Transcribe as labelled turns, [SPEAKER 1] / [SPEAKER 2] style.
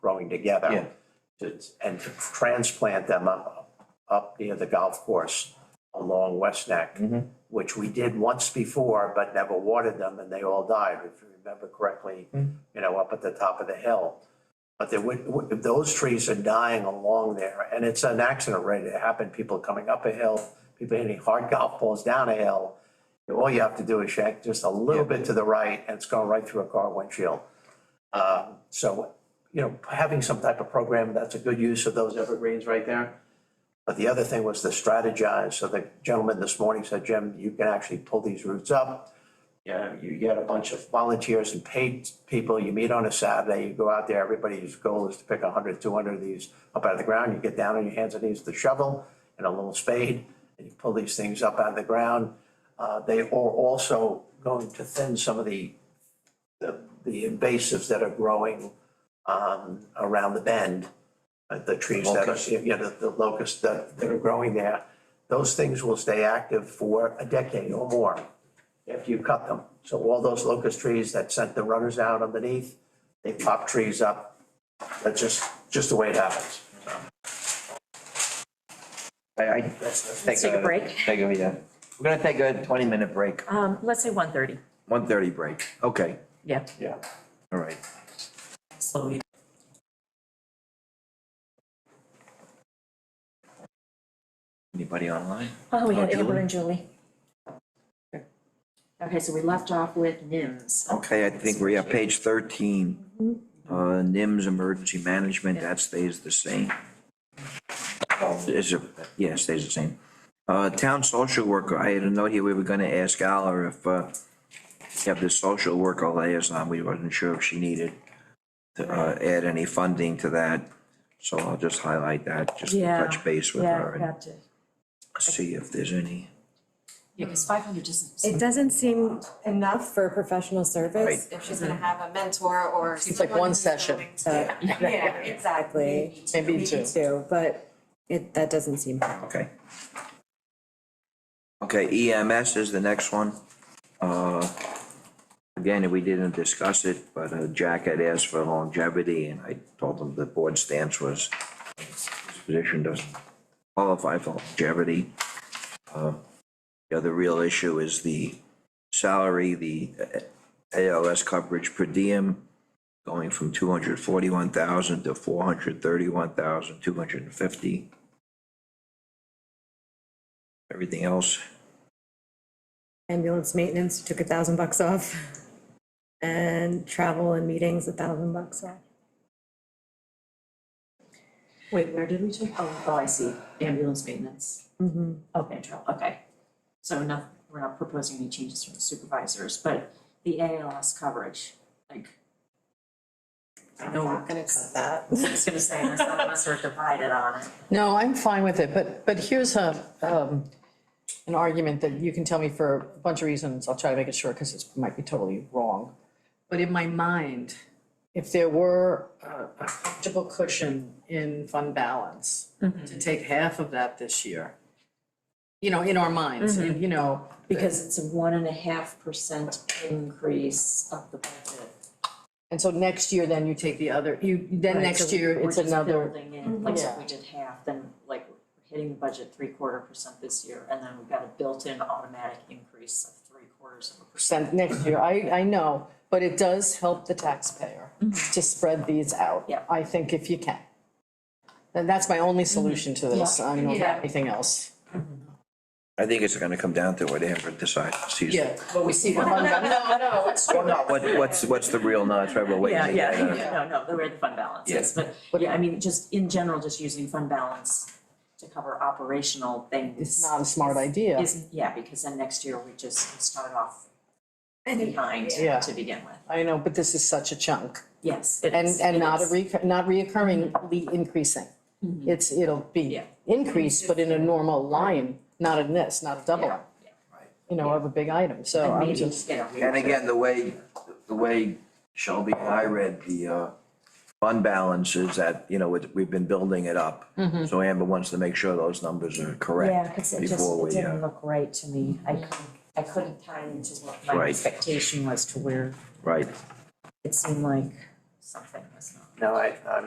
[SPEAKER 1] growing together.
[SPEAKER 2] Yeah.
[SPEAKER 1] to- And to transplant them up, up near the golf course along West Neck, which we did once before, but never watered them and they all died, if you remember correctly, you know, up at the top of the hill. But there would, would- those trees are dying along there and it's an accident ready to happen, people coming up a hill, people hitting hard golf balls down a hill. All you have to do is shake just a little bit to the right and it's going right through a car windshield. Uh, So, you know, having some type of program, that's a good use of those evergreens right there. But the other thing was to strategize. So the gentleman this morning said, Jim, you can actually pull these roots up. Yeah, you get a bunch of volunteers and paid people. You meet on a Saturday, you go out there, everybody's goal is to pick 100, 200 of these up out of the ground. You get down on your hands and knees with a shovel and a little spade, and you pull these things up out of the ground. Uh, They are also going to thin some of the the, the invasives that are growing um, around the bend, uh, the trees that are,
[SPEAKER 2] Locusts.
[SPEAKER 1] you know, the locusts that, that are growing there, those things will stay active for a decade or more after you cut them. So all those locust trees that sent the runners out underneath, they pop trees up. That's just, just the way it happens.
[SPEAKER 2] I, I. Let's
[SPEAKER 3] take a break.
[SPEAKER 2] Take a, yeah. We're gonna take a twenty-minute break,
[SPEAKER 3] Um, let's say one thirty,
[SPEAKER 2] one thirty break. Okay,
[SPEAKER 3] yeah,
[SPEAKER 1] Yeah.
[SPEAKER 2] all right.
[SPEAKER 3] slowly.
[SPEAKER 2] Anybody online?
[SPEAKER 3] Oh, we
[SPEAKER 2] Oh,
[SPEAKER 3] had Amber
[SPEAKER 2] Julie?
[SPEAKER 3] and Julie.
[SPEAKER 2] Okay.
[SPEAKER 3] Okay, so we left off with NIMS.
[SPEAKER 2] Okay, I think we're at page thirteen. Uh, NIMS, emergency management, that stays the same.
[SPEAKER 3] Oh.
[SPEAKER 2] Is it, yeah, stays the same. Uh, town social worker, I had a note here, we were gonna ask Alla if, uh, you have this social worker liaison, we wasn't sure if she needed to, uh, add any funding to that. So I'll just highlight that, just to
[SPEAKER 3] Yeah,
[SPEAKER 2] touch base with
[SPEAKER 3] yeah,
[SPEAKER 2] her and
[SPEAKER 3] got to-
[SPEAKER 2] see if there's any.
[SPEAKER 3] Yeah, because five hundred doesn't.
[SPEAKER 4] It doesn't seem enough for a professional service.
[SPEAKER 5] if she's gonna have a mentor or.
[SPEAKER 6] It's like one session.
[SPEAKER 4] Yeah,
[SPEAKER 5] Yeah,
[SPEAKER 4] exactly.
[SPEAKER 6] Maybe two.
[SPEAKER 4] Too, but it, that doesn't seem.
[SPEAKER 2] Okay. Okay, EMS is the next one. Uh, Again, we didn't discuss it, but uh, Jack had asked for longevity, and I told him the board stance was his position doesn't qualify for longevity. Uh, The other real issue is the salary, the uh, ALS coverage per diem going from two hundred forty-one thousand to four hundred thirty-one thousand, two hundred and fifty. Everything else,
[SPEAKER 4] Ambulance maintenance took a thousand bucks off. And travel and meetings, a thousand bucks off.
[SPEAKER 3] Wait, where did we take, oh, oh, I see, ambulance maintenance,
[SPEAKER 4] Mhm.
[SPEAKER 3] okay, travel, okay. So not, we're not proposing any changes from the supervisors, but the ALS coverage, like. I know we're
[SPEAKER 6] gonna cut
[SPEAKER 3] I
[SPEAKER 6] that.
[SPEAKER 3] was gonna say, there's some of us who are divided on it.
[SPEAKER 6] No, I'm fine with it, but, but here's a, um, an argument that you can tell me for a bunch of reasons, I'll try to make it short, because it might be totally wrong. But in my mind, if there were a a comfortable cushion in fund balance,
[SPEAKER 3] Mm-hmm.
[SPEAKER 6] to take half of that this year, you know, in our minds, and, you know,
[SPEAKER 3] Mm-hmm. Because it's a one and a half percent increase of the budget.
[SPEAKER 6] and so next year, then you take the other, you, then
[SPEAKER 3] Right,
[SPEAKER 6] next
[SPEAKER 3] so
[SPEAKER 6] year,
[SPEAKER 3] we're
[SPEAKER 6] it's
[SPEAKER 3] just
[SPEAKER 6] another,
[SPEAKER 3] building in, like, so if
[SPEAKER 6] Yeah.
[SPEAKER 3] we did half, then like we're hitting the budget three quarter percent this year, and then we've got a built-in automatic increase of three quarters of a percent.
[SPEAKER 6] percent next year, I, I know, but it does help the taxpayer to spread these out.
[SPEAKER 3] Yeah.
[SPEAKER 6] I think if you can. And that's my only solution to this, I don't
[SPEAKER 3] Yeah.
[SPEAKER 6] have anything else.
[SPEAKER 2] I think it's gonna come down to what Amber decides this season.
[SPEAKER 6] but we see the fund, no, no, it's
[SPEAKER 2] Well, no, what, what's, what's the real, no, that's right, we're waiting.
[SPEAKER 3] Yeah,
[SPEAKER 2] to
[SPEAKER 3] yeah,
[SPEAKER 2] get, uh,
[SPEAKER 3] no, no, the way the fund balance is, but yeah, I mean, just in general, just using fund balance to cover operational things.
[SPEAKER 6] It's not a smart idea.
[SPEAKER 3] Isn't, yeah, because then next year we just start off
[SPEAKER 4] I think-
[SPEAKER 3] behind
[SPEAKER 6] Yeah.
[SPEAKER 3] to begin with,
[SPEAKER 6] I know, but this is such a chunk,
[SPEAKER 3] yes, it
[SPEAKER 6] and,
[SPEAKER 3] is,
[SPEAKER 6] and
[SPEAKER 3] it
[SPEAKER 6] not a
[SPEAKER 3] is. Mm-hmm.
[SPEAKER 6] recur, not reoccurringly increasing. It's, it'll be
[SPEAKER 3] Yeah.
[SPEAKER 6] increased, but in a normal line, not in this, not a double,
[SPEAKER 3] Yeah,
[SPEAKER 6] you know, of a big item, so
[SPEAKER 3] And
[SPEAKER 6] I'm
[SPEAKER 3] maybe,
[SPEAKER 6] just.
[SPEAKER 3] you know, we-
[SPEAKER 2] And again, the way, the way Shelby and I read the, uh, fund balance is that, you know, it- we've been building it up. So Amber wants to make sure those numbers are
[SPEAKER 3] Mm-hmm. Yeah,
[SPEAKER 2] correct
[SPEAKER 3] because it just,
[SPEAKER 2] before
[SPEAKER 3] it
[SPEAKER 2] we, uh,
[SPEAKER 3] didn't look right to me. I couldn't, I couldn't tie into what my
[SPEAKER 2] Right.
[SPEAKER 3] expectation was to where
[SPEAKER 2] right.
[SPEAKER 3] it seemed like something was not.
[SPEAKER 1] No, I, I'm